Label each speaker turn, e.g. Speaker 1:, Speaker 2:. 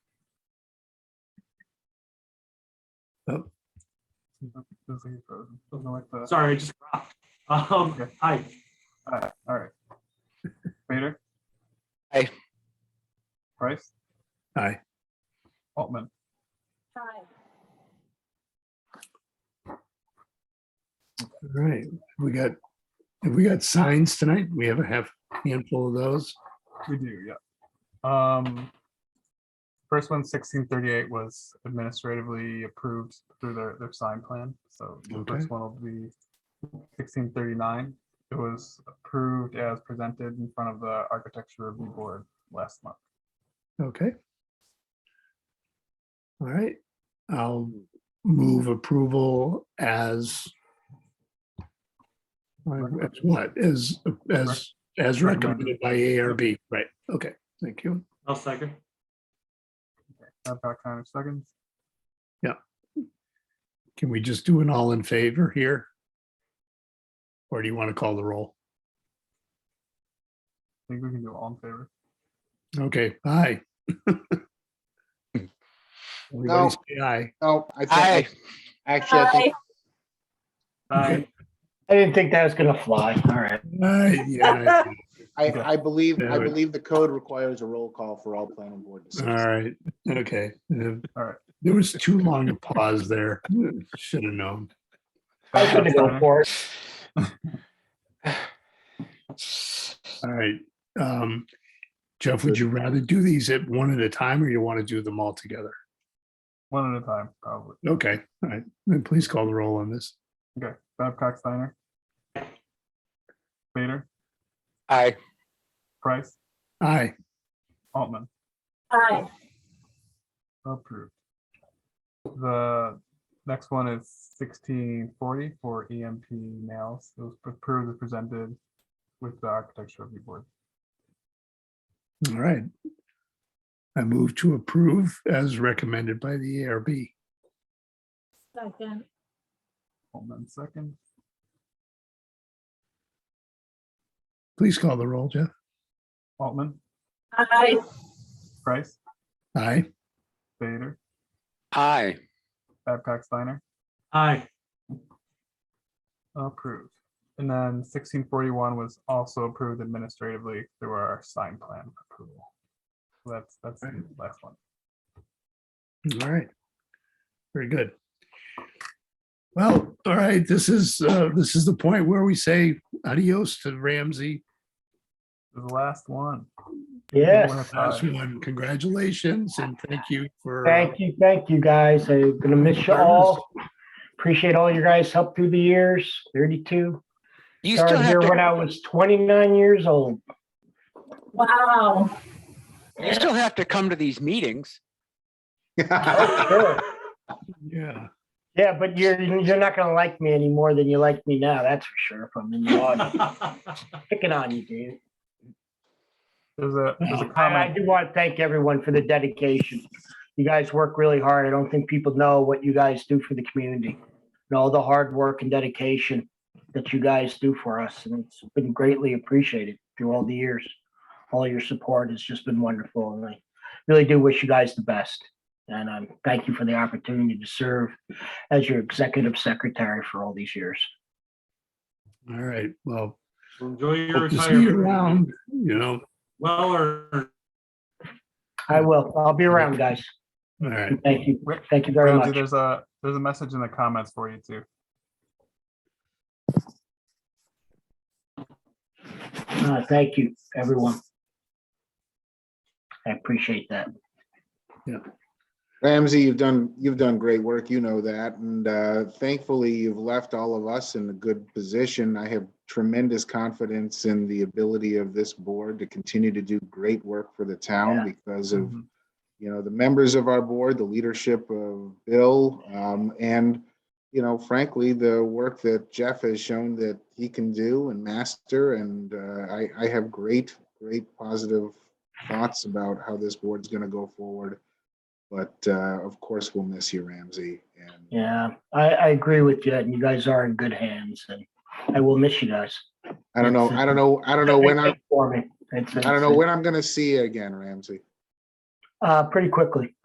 Speaker 1: Doesn't get frozen. Doesn't like the.
Speaker 2: Sorry, I just dropped. Um,
Speaker 1: Uh, Okay.
Speaker 2: hi,
Speaker 1: All right, all right. Vader?
Speaker 3: Aye.
Speaker 1: Price?
Speaker 4: Aye.
Speaker 1: Altman?
Speaker 5: Aye.
Speaker 4: All right, we got, have we got signs tonight? We have a half handful of those.
Speaker 1: We do, yeah. Um, first one, sixteen thirty-eight was administratively approved through their, their sign plan, so the
Speaker 4: Okay.
Speaker 1: first one will be sixteen thirty-nine. It was approved as presented in front of the Architecture Review Board last month.
Speaker 4: Okay. All right, I'll move approval as as what, as, as, as recommended by ARB, right? Okay, thank you.
Speaker 2: I'll second.
Speaker 1: Babcock, Connor, seconds.
Speaker 4: Can we just do an all in favor here? Or do you want to call the roll?
Speaker 1: I think we can do all in favor.
Speaker 4: Okay, aye. Everybody say Aye.
Speaker 6: Oh, I
Speaker 3: Aye.
Speaker 6: think, actually, I think,
Speaker 2: Hi,
Speaker 7: I didn't think that was gonna fly. All right.
Speaker 4: Aye, yeah, aye.
Speaker 1: Okay.
Speaker 6: I, I believe,
Speaker 4: Yeah,
Speaker 6: I
Speaker 4: but-
Speaker 6: believe the code requires a roll call for all planning board
Speaker 4: All
Speaker 6: decisions.
Speaker 4: right, okay. Uh,
Speaker 1: All right.
Speaker 4: There was too long a pause there. Should have known.
Speaker 7: I was gonna go
Speaker 1: Babcock, Connor,
Speaker 7: for it.
Speaker 4: All right. Um, Jeff, would you rather do these at one at a time or you want to do them all together?
Speaker 1: One at a time, probably.
Speaker 4: Okay, all right. Then please call the roll on this.
Speaker 1: Okay, Babcock, Steiner. Vader,
Speaker 3: Aye.
Speaker 1: Price,
Speaker 4: Aye.
Speaker 1: Altman.
Speaker 5: Aye.
Speaker 1: Approved. The next one is sixteen forty for EMP nails. It was approved and presented with the architecture review board.
Speaker 4: All right. I move to approve as recommended by the ARB.
Speaker 5: Second.
Speaker 1: Hold on a second.
Speaker 4: Please call the roll, Jeff.
Speaker 1: Altman,
Speaker 5: Aye.
Speaker 1: Price,
Speaker 4: Aye.
Speaker 1: Vader,
Speaker 3: Aye.
Speaker 1: Babcock, Steiner,
Speaker 2: hi,
Speaker 1: approved. And then sixteen forty-one was also approved administratively through our sign plan approval. That's, that's the last one.
Speaker 4: All right. Very good. Well, all right, this is, uh, this is the point where we say adios to Ramsey.
Speaker 1: The last one.
Speaker 7: Yes.
Speaker 4: Last one. Congratulations and thank you for. uh,
Speaker 7: Thank you, thank you, guys. I'm gonna miss you all. Appreciate all your guys' help through the years, thirty-two.
Speaker 3: You still
Speaker 7: Started here
Speaker 3: have
Speaker 7: when
Speaker 3: to,
Speaker 7: I was twenty-nine years old.
Speaker 5: Wow.
Speaker 3: you still have to come to these meetings.
Speaker 7: Sure.
Speaker 4: Yeah.
Speaker 7: Yeah, but you're, you're not gonna like me any more than you like me now, that's for sure, if I'm in the audience. Picking on you, dude.
Speaker 1: There's a, there's a
Speaker 7: And I
Speaker 1: comment.
Speaker 7: do want to thank everyone for the dedication. You guys work really hard. I don't think people know what you guys do for the community and all the hard work and dedication that you guys do for us. And it's been greatly appreciated through all the years. All your support has just been wonderful. And I really do wish you guys the best. And I'm thank you for the opportunity to serve as your executive secretary for all these years.
Speaker 4: All right. Well,
Speaker 2: enjoy your
Speaker 4: hope to see you
Speaker 2: retirement.
Speaker 4: around, you know,
Speaker 2: Well, or
Speaker 7: I will. I'll be around, guys.
Speaker 4: all right.
Speaker 7: Thank you. Thank you very
Speaker 1: Ramsey,
Speaker 7: much.
Speaker 1: There's a, there's a message in the comments for you too.
Speaker 7: Uh, Thank you, everyone. I appreciate that.
Speaker 6: Ramsey, you've done, you've done great work, you know that, and uh, thankfully, you've left all of us in a good position. I have tremendous confidence in the ability of this board to continue to do great work for the
Speaker 7: Yeah.
Speaker 6: town because of
Speaker 1: Mhm.
Speaker 6: you know, the members of our board, the leadership of Bill, um, and, you know, frankly, the work that Jeff has shown that he can do and master, and, uh, I, I have great, great positive thoughts about how this board's gonna go forward. But, uh, of course, we'll miss you, Ramsey, and
Speaker 7: Yeah, I, I agree with you. And you guys are in good hands and I will miss you guys.
Speaker 6: I don't know, I don't know, I don't know when I,
Speaker 7: For me. It's,
Speaker 6: I don't know when I'm gonna see you again, Ramsey.
Speaker 7: Uh, pretty quickly.